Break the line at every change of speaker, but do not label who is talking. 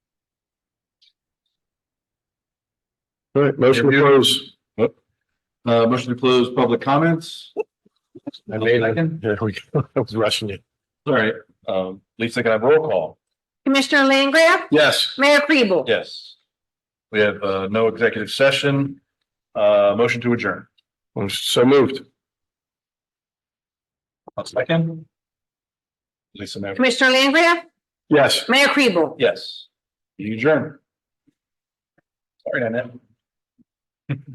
All right, motion to
Review.
close.
Uh, motion to close public comments.
I made it.
Second.
There we go. I was rushing you.
All right, um, Lisa, can I have roll call?
Commissioner Langgraf?
Yes.
Mayor Kribel?
Yes. We have, uh, no executive session, uh, motion to adjourn.
I'm so moved.
One second. Lisa, now-
Commissioner Langgraf?
Yes.
Mayor Kribel?
yes, you adjourn. Sorry, Nanette.